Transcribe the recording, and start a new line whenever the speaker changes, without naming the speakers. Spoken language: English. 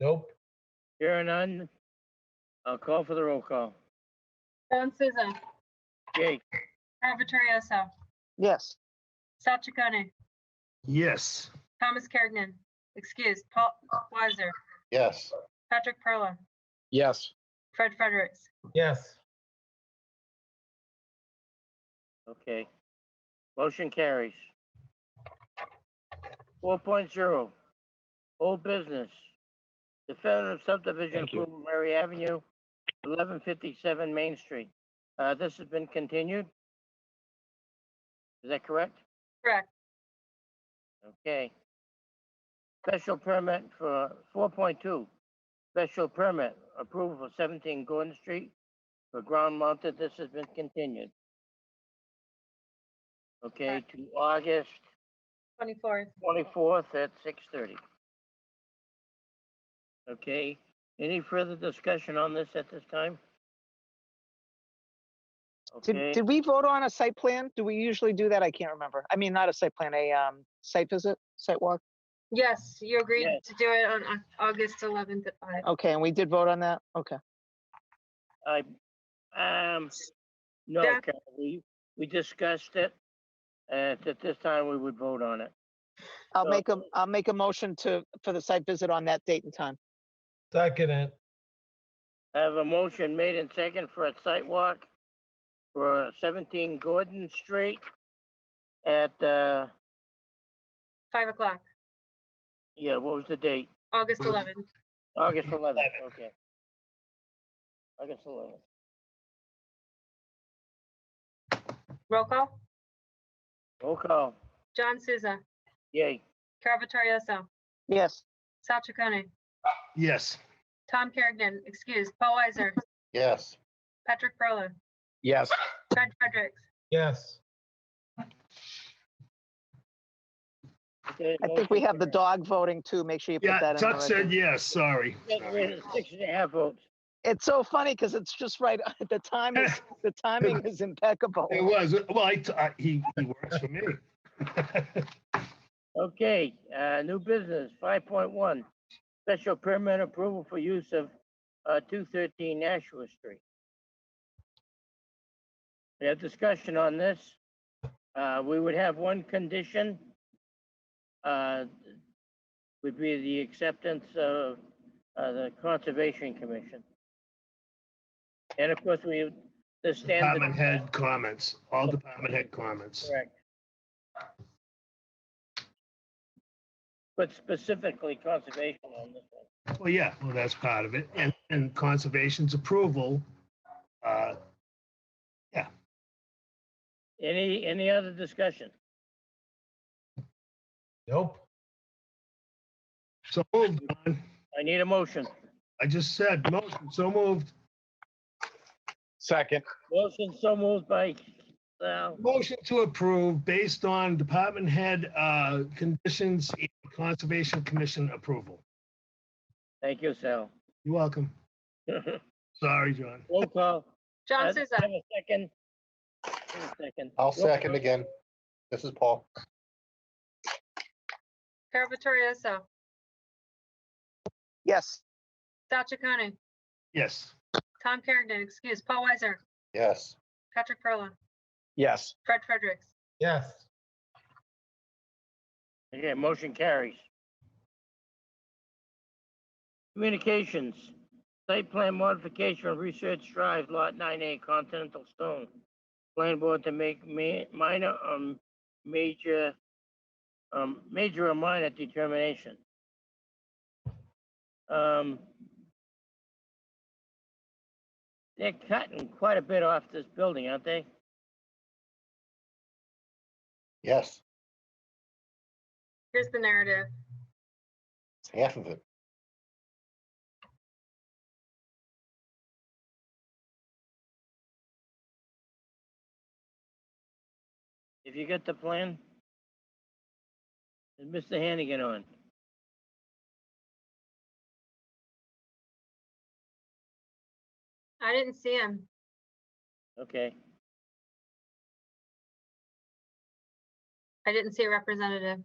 Nope.
Hearing none, I'll call for the roll call.
Joan Souza,
Jake,
Robert Torioso,
Yes.
Sal Chaconi,
Yes.
Thomas Carrigan, excuse, Paul Weiser,
Yes.
Patrick Perla,
Yes.
Fred Fredericks.
Yes.
okay. Motion carries. Four point zero, old business. Definitive subdivision
Thank you.
approval, Mary Avenue, eleven fifty-seven Main Street. Uh, this has been continued? Is that correct?
Correct.
Okay. Special permit for four point two, special permit approval for seventeen Gordon Street for ground mounted. This has been continued. Okay, to August
24th.
twenty-fourth at six thirty. Okay, any further discussion on this at this time? Okay, Mm.
Did, did we vote on a site plan? Do we usually do that? I can't remember. I mean, not a site plan, a um, site visit, site walk.
Yes, you agreed
Yes.
to do it on Au- August 11th at 5.
Okay, and we did vote on that? Okay.
I, um, no,
Back-
Carol, we, we discussed it. And at this time, we would vote on it.
I'll
So-
make a, I'll make a motion to, for the site visit on that date and time.
Second it.
I have a motion made and second for a site walk for seventeen Gordon Street at, uh,
5 o'clock,
yeah, what was the date?
August
Mm.
11th.
August eleventh, okay. August eleventh.
Roll call.
Roll call,
John Souza,
yay.
Carol Vittorioso,
Yes.
Sal Chaconi,
Yes.
Tom Kerrigan, excuse, Paul Weiser,
Yes.
Patrick Perla,
Yes.
Fred Fredericks.
Yes.
Okay,
I think we
motion
have the
carries.
dog voting too. Make sure you put
Yeah,
that in.
Tut
the
said
record.
yes, sorry.
Get rid of Six and a half votes.
It's so funny because it's just right, the time is, the timing is impeccable.
It was, well, I, t- I- he, he works for me.
Okay, uh, new business, five point one, special permit approval for use of, uh, two thirteen Nashua Street. We have discussion on this. Uh, we would have one condition. Uh, would be the acceptance of, uh, the Conservation Commission. And of course, we, the standard.
Department head comments, all department head comments.
Correct. But specifically conservation on this one.
Well, yeah, well, that's part of it. And, and conservation's approval. uh,
Any, any other discussion?
Nope.
So moved, Don.
I need a motion.
I just said, motion, so moved.
Second.
Motion so moved by Sal.
Motion to approve based on department head uh, conditions and Conservation Commission approval.
Thank you, Sal.
You're welcome.
Roll
Sorry, John.
call.
John
Have-
Souza,
Have a second. Have a Second.
I'll
Roll
second
call.
again. This is Paul.
Carol Vittorioso,
Yes.
Sal Chaconi,
Yes.
Tom Kerrigan, excuse, Paul Weiser,
Yes.
Patrick Perla,
Yes.
Fred Fredericks.
Yes.
Okay, motion carries. Communications, site plan modification of Research Drive, Lot 9A, Continental Stone. Plan board to make ma- minor, um, major, um, major or minor determination. Um, they're cutting quite a bit off this building, aren't they?
Yes.
Here's the narrative.
Half of it.
If you get the plan? Is Mr. Hannigan on?
I didn't see him.
Okay.
I didn't see a representative.